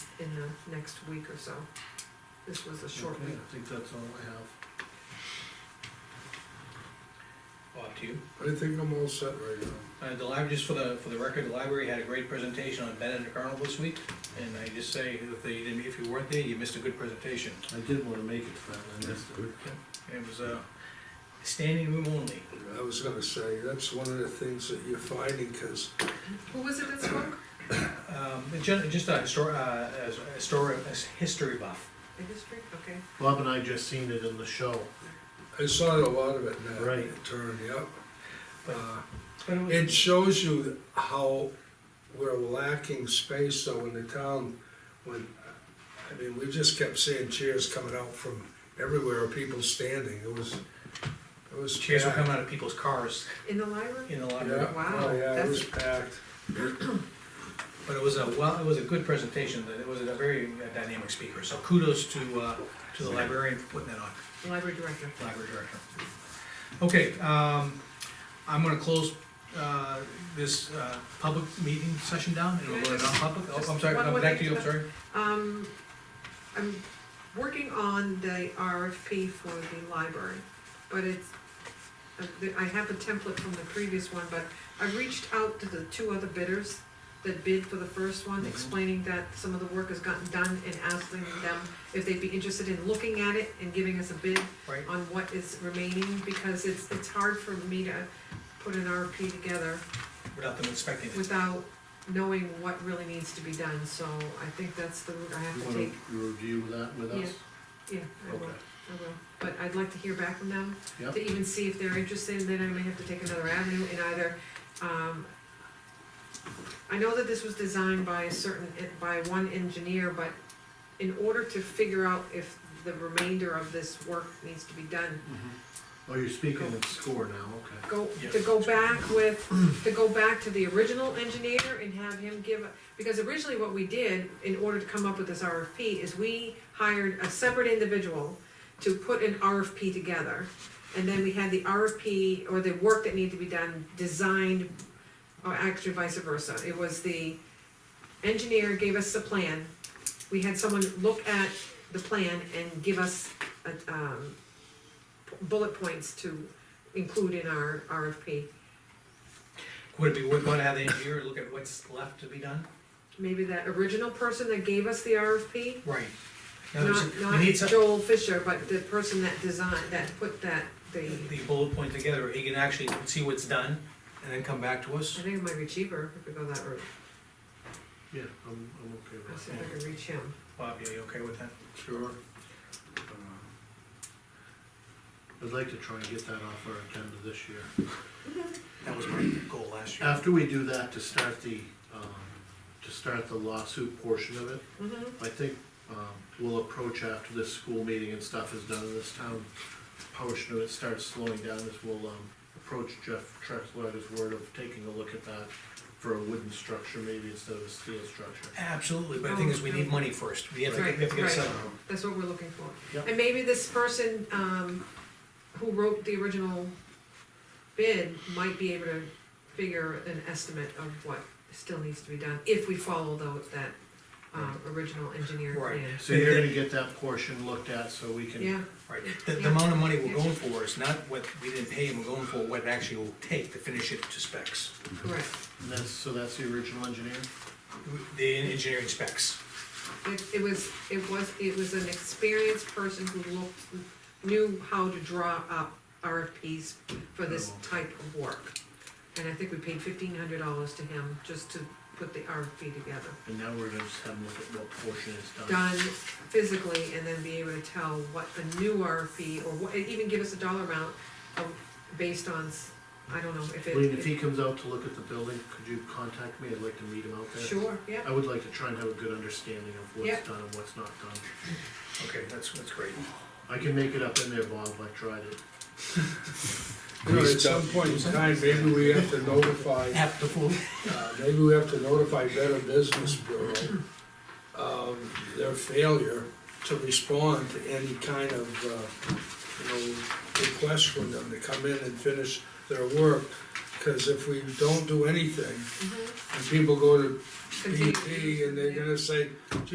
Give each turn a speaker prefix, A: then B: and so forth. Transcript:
A: in the next week or so. This was a short
B: Okay,
A: week.
B: I think that's all I have.
C: Bob, to you.
D: I think I'm all set right now.
C: Uh, the library, just for the, for the record, the library had a great presentation on Bennett Carnival this week, and I just say, if they didn't, if you weren't there, you missed a good presentation.
B: I did wanna make it, but I missed it.
C: It was, uh, standing room only.
D: I was gonna say, that's one of the things that you're finding, because
A: Who was it that spoke?
C: Um, ju- just a histor, uh, a story, a history buff.
A: The history, okay.
B: Bob and I just seen it in the show.
D: I saw a lot of it in that.
B: Right.
D: it Turned, yep.
C: But-
D: Uh,
C: But it was-
D: It shows you how we're lacking space though in the town when, I mean, we just kept seeing chairs coming out from everywhere, people standing, it was, it was.
C: Chairs were
D: packed.
C: coming out of people's cars
A: In the library?
C: in the library,
D: Yeah,
A: Wow,
D: oh yeah, it
A: that's-
D: was packed.
C: but it was a, well, it was a good presentation, that it was a very uh, dynamic speaker, so kudos to, uh, to the librarian for putting that on.
A: The Library director.
C: library director. Okay, um, I'm gonna close, uh, this, uh, public meeting session down, and we'll go to non-public, oh, I'm sorry,
A: Just one
C: no,
A: more
C: back to
A: thing
C: you, I'm
A: to-
C: sorry.
A: Um, I'm working on the RFP for the library, but it's, uh, I have a template from the previous one, but I reached out to the two other bidders that bid for the first one,
C: Mhm.
A: explaining that some of the work has gotten done and asking them if they'd be interested in looking at it and giving us a bid
C: Right,
A: on what is remaining, because it's, it's hard for me to put an RFP together
C: without them inspecting it.
A: without knowing what really needs to be done, so I think that's the route I
B: You
A: have to
B: wanna
A: take.
B: review that with us?
A: Yeah, I will,
B: Okay,
A: I will, but I'd like to hear back from them,
B: Yep.
A: to even see if they're interested, and then I may have to take another avenue and either, um, I know that this was designed by a certain, by one engineer, but in order to figure out if the remainder of this work needs to be done,
B: Oh, you're speaking in score now, okay.
A: go,
C: Yes.
A: to go back with, to go back to the original engineer and have him give, because originally what we did, in order to come up with this RFP, is we hired a separate individual to put an RFP together. And then we had the RFP, or the work that needed to be done, designed, or actually vice versa. It was the engineer gave us the plan, we had someone look at the plan and give us, a, um, bullet points to include in our RFP.
C: Would it be worthwhile to have the engineer look at what's left to be done?
A: Maybe that original person that gave us the RFP,
C: Right. Now, there's-
A: not,
C: we need
A: not
C: some,
A: Joel Fisher, but the person that designed, that put that, the,
C: the bullet point together, he can actually see what's done, and then come back to
A: I
C: us.
A: think it might be cheaper if we go that route.
B: Yeah, I'm, I'm okay
A: I'll
B: with
A: see if I can reach him.
C: Bob, are you okay with that?
B: that. Sure. Um, I'd like to try and get that off our agenda this year.
C: That was my goal last
A: Uh,
C: year.
B: After we do that, to start the, um, to start the lawsuit portion of it,
A: Mhm.
B: I think, um, we'll approach after this school meeting and stuff is done in this town, portion of it starts slowing down, is we'll, um, approach Jeff Trexler at his word of taking a look at that for a wooden structure maybe instead of a steel structure.
C: Absolutely, but the thing is, we need money first, we have to, get- we have
A: oh,
C: to get
A: Right,
C: a
A: right.
C: settlement.
A: That's what we're looking for.
B: Yep.
A: And maybe this person, um, who wrote the original bid might be able to figure an estimate of what still needs to be done, if we follow though that, um, original engineer
C: Right.
A: plan.
B: So you're gonna get that portion looked at so we can,
A: Yeah,
C: Right, the, the
A: Yeah.
C: amount of money we're
A: Yeah.
C: going for is not what we didn't pay him, we're going for what it actually will take to finish it to specs.
A: correct.
B: and that's, so that's the original engineer?
C: The engineering specs.
A: It, it was, it was, it was an experienced person who looked, knew how to draw up RFPs for this
B: Oh.
A: type of work. And I think we paid fifteen hundred dollars to him just to put the RFP together.
B: And now we're gonna just have them look at what portion is done.
A: Done physically and then be able to tell what a new RFP, or what, and even give us a dollar amount of, based on, s- I don't know, if it.
B: Lean, if he comes out to look at the building, could you contact me? I'd like to meet him out there.
A: Sure, yeah,
B: I would like to try and have a good understanding of
A: Yeah.
B: what's done and what's not done.
C: Okay, that's, that's great.
B: I can make it up in there, Bob, I tried it.
D: You know, at some point in time, maybe we have to notify
C: Have the full.
D: Uh, maybe we have to notify Better Business Bureau of their failure to respond to any kind of, uh, you know, request from them to come in and finish their work. Cause if we
A: Mm-hmm.
D: don't do anything, and people go to
B: E
D: E
A: continue.
D: BP and they're gonna say,